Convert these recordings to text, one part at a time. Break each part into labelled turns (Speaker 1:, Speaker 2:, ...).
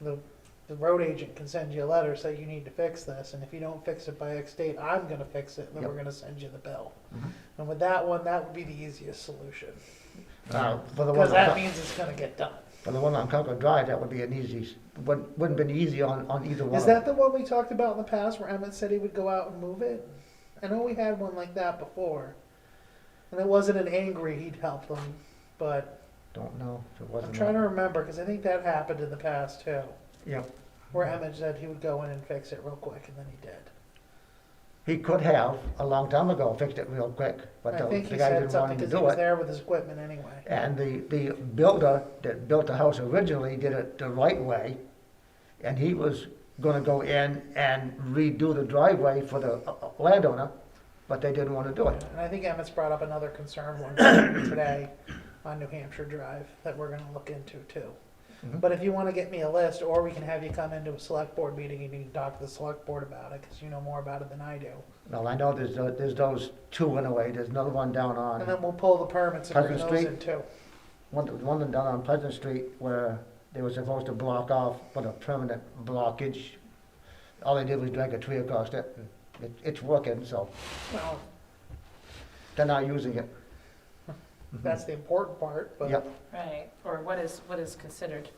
Speaker 1: the, the road agent can send you a letter, say you need to fix this, and if you don't fix it by X date, I'm gonna fix it, and then
Speaker 2: Yep.
Speaker 1: we're gonna send you the bill.
Speaker 2: Mhm.
Speaker 1: And with that one, that would be the easiest solution,
Speaker 2: Uh, For the one
Speaker 1: because
Speaker 2: on
Speaker 1: that
Speaker 2: Con-
Speaker 1: means it's gonna get done.
Speaker 2: for the one on Concord Drive, that would be an easy, s- wouldn't, wouldn't been easy on, on either one.
Speaker 1: Is
Speaker 2: of
Speaker 1: that
Speaker 2: them.
Speaker 1: the one we talked about in the past where Emmett said he would go out and move it? I know we had one like that before. And it wasn't an angry he'd help them, but
Speaker 2: Don't know if it
Speaker 1: I'm
Speaker 2: wasn't.
Speaker 1: trying to remember because I think that happened in the past too.
Speaker 2: Yep.
Speaker 1: Where Emmett said he would go in and fix it real quick and then he did.
Speaker 2: He could have, a long time ago, fixed it real quick, but
Speaker 1: I
Speaker 2: the
Speaker 1: think he
Speaker 2: the guy
Speaker 1: said
Speaker 2: didn't want
Speaker 1: something
Speaker 2: him to
Speaker 1: because he
Speaker 2: do
Speaker 1: was
Speaker 2: it.
Speaker 1: there with his equipment anyway.
Speaker 2: And the, the builder that built the house originally did it the right way, and he was gonna go in and redo the driveway for the uh, uh, landowner, but they didn't wanna do it.
Speaker 1: And I think Emmett's brought up another concern one time today on New Hampshire Drive that we're gonna look into too.
Speaker 2: Mhm.
Speaker 1: But if you wanna get me a list, or we can have you come into a select board meeting and you can talk to the select board about it, cause you know more about it than I do.
Speaker 2: Well, I know there's, tho- there's those two in a way, there's another one down
Speaker 1: And then
Speaker 2: on,
Speaker 1: we'll pull the permits and bring
Speaker 2: Pleasant
Speaker 1: those
Speaker 2: Street?
Speaker 1: in too.
Speaker 2: one, one down on Pleasant Street where they were supposed to block off, put a permanent blockage. All they did was drag a tree across it, and it, it's working, so
Speaker 1: Well,
Speaker 2: they're not using it.
Speaker 1: that's the important part, but
Speaker 2: Yep,
Speaker 3: Right, or what is, what is considered,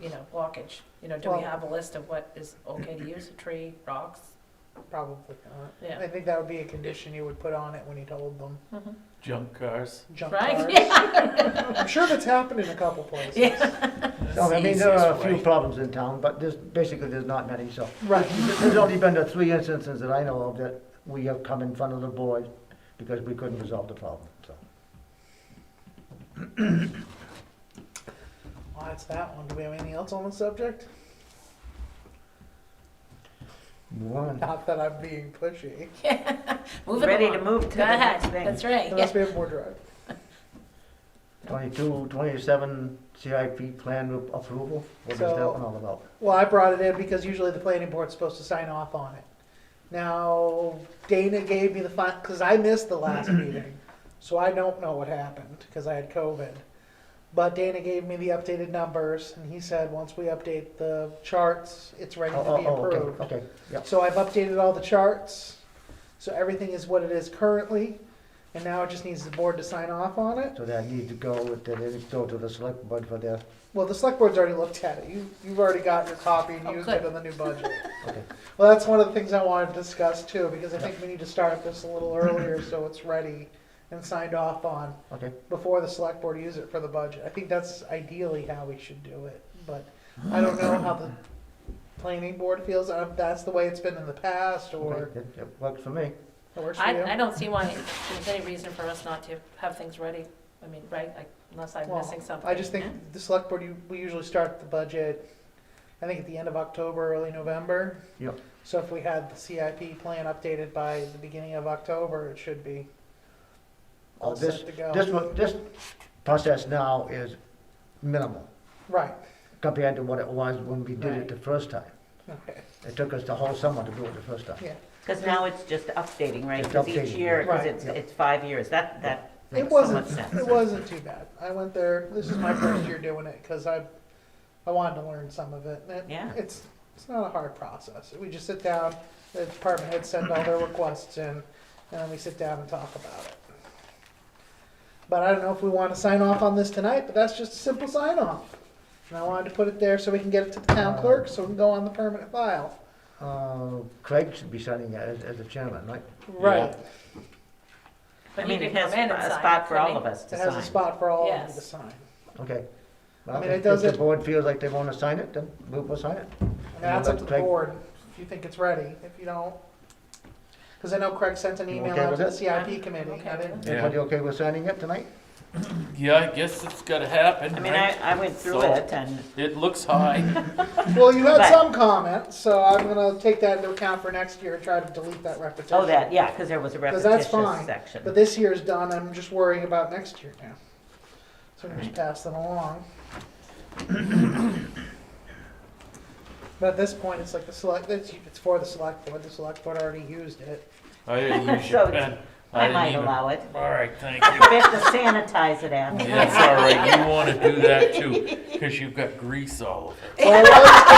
Speaker 3: you know, blockage? You know, do
Speaker 1: Well-
Speaker 3: we have a list of what is okay to use, a tree, rocks?
Speaker 1: probably not.
Speaker 3: Yeah.
Speaker 1: I think that would be a condition you would put on it when you told them.
Speaker 4: Junk cars.
Speaker 1: Junk
Speaker 3: Right,
Speaker 1: cars.
Speaker 3: yeah.
Speaker 1: I'm sure that's happened in a couple places.
Speaker 3: Yeah.
Speaker 2: so I mean, there
Speaker 4: Easiest
Speaker 2: are a few
Speaker 4: way.
Speaker 2: problems in town, but there's, basically there's not many, so.
Speaker 1: Right.
Speaker 2: There's only been the three instances that I know of that we have come in front of the board because we couldn't resolve the problem, so.
Speaker 1: Well, that's that one. Do we have anything else on the subject?
Speaker 2: Move on.
Speaker 1: Not that I'm being pushy.
Speaker 3: Moving
Speaker 5: Ready to
Speaker 3: along.
Speaker 5: move
Speaker 3: Go
Speaker 5: to the
Speaker 3: ahead.
Speaker 5: next thing.
Speaker 3: That's right, yeah.
Speaker 1: Unless we have more drive.
Speaker 2: 22, 27 CIP plan re- approval, what is that
Speaker 1: So-
Speaker 2: one all about?
Speaker 1: Well, I brought it in because usually the planning board's supposed to sign off on it. Now, Dana gave me the final, because I missed the last meeting, so I don't know what happened, because I had COVID. But Dana gave me the updated numbers, and he said, once we update the charts, it's ready
Speaker 2: Oh,
Speaker 1: to
Speaker 2: oh,
Speaker 1: be
Speaker 2: oh,
Speaker 1: approved.
Speaker 2: okay, okay, yeah.
Speaker 1: So I've updated all the charts, so everything is what it is currently, and now it just needs the board to sign off on it.
Speaker 2: So that needs to go with, the- they need to go to the select board for their,
Speaker 1: Well, the select board's already looked at it. You, you've already got your copy and
Speaker 3: Oh,
Speaker 1: used
Speaker 3: good.
Speaker 1: it on the new budget.
Speaker 2: okay.
Speaker 1: Well, that's one of the things I wanted to discuss too, because I think we need to start this a little earlier so it's ready and signed off on
Speaker 2: Okay.
Speaker 1: before the select board use it for the budget. I think that's ideally how we should do it, but I don't know how the planning board feels, uh, if that's the way it's been in the past or
Speaker 2: Okay, It it works for me.
Speaker 1: it works for
Speaker 3: I, I
Speaker 1: you.
Speaker 3: don't see why there's any reason for us not to have things ready. I mean, right, like, unless I'm
Speaker 1: Well,
Speaker 3: missing something.
Speaker 1: I just think the select board, you- we usually start the budget, I think at the end of October, early November.
Speaker 2: Yep.
Speaker 1: So if we had the CIP plan updated by the beginning of October, it should be all
Speaker 2: Oh, this-
Speaker 1: set to go.
Speaker 2: This one, this process now is minimal
Speaker 1: Right,
Speaker 2: compared to what it was when we did it the first time.
Speaker 1: okay,
Speaker 2: It took us the whole summer to do it the first time.
Speaker 1: yeah.
Speaker 5: Because now it's just updating, right?
Speaker 2: It's
Speaker 5: Because each
Speaker 2: updating,
Speaker 5: year, because
Speaker 1: right.
Speaker 5: it's, it's five years, that, that
Speaker 1: It
Speaker 5: makes so much
Speaker 1: wasn't,
Speaker 5: sense.
Speaker 1: it wasn't too bad. I went there, this is my first year doing it, cause I, I wanted to learn some of it. and it-
Speaker 5: Yeah.
Speaker 1: It's, it's not a hard process. We just sit down, the department heads send all their requests in, and then we sit down and talk about it. But I don't know if we wanna sign off on this tonight, but that's just a simple sign off. And I wanted to put it there so we can get it to the town clerk, so we can go on the permanent file.
Speaker 2: Uh, Craig should be signing it as, as the chairman, right?
Speaker 1: Right.
Speaker 5: I
Speaker 3: But he
Speaker 5: mean, it
Speaker 3: could
Speaker 5: has
Speaker 3: come in and sign,
Speaker 5: a spot for
Speaker 3: couldn't
Speaker 5: all of
Speaker 3: he?
Speaker 5: us to
Speaker 1: It has a
Speaker 5: sign.
Speaker 1: spot for all of you to
Speaker 3: Yes.
Speaker 1: sign.
Speaker 2: Okay. Well,
Speaker 1: mean, it
Speaker 2: if- If
Speaker 1: doesn't-
Speaker 2: the board feels like they want to sign it, then we'll, we'll sign it.
Speaker 1: And that's up to the
Speaker 2: Craig-
Speaker 1: board, if you think it's ready, if you don't. Because I know Craig sent an
Speaker 2: You
Speaker 1: email
Speaker 2: okay
Speaker 1: out
Speaker 2: with
Speaker 1: to the
Speaker 2: it?
Speaker 1: CIP
Speaker 3: I'm
Speaker 1: committee.
Speaker 3: okay
Speaker 1: I
Speaker 3: with
Speaker 1: didn't-
Speaker 4: Yeah.
Speaker 2: Everybody okay with signing it tonight?
Speaker 4: Yeah, I guess it's gotta happen,
Speaker 5: I mean, I,
Speaker 4: right?
Speaker 5: I went through
Speaker 4: So-
Speaker 5: it and,
Speaker 4: It looks high.
Speaker 1: Well, you had
Speaker 5: But-
Speaker 1: some comment, so I'm gonna take that into account for next year and try to delete that repetition.
Speaker 5: oh, that, yeah, because there was a
Speaker 1: 'Cause that's
Speaker 5: repetitious
Speaker 1: fine,
Speaker 5: section.
Speaker 1: But this year's done, I'm just worrying about next year now. So I'm just pass them along. But at this point, it's like the select, it's, it's for the select board, the select board already used it.
Speaker 4: I didn't use
Speaker 5: So
Speaker 4: your
Speaker 5: it's-
Speaker 4: pen. I
Speaker 5: I
Speaker 4: didn't
Speaker 5: might
Speaker 4: even-
Speaker 5: allow it.
Speaker 4: All right, thank you.
Speaker 5: We have to sanitize it after.
Speaker 4: That's all right. You want to do that too, because you've got grease all over.
Speaker 1: Well, let's-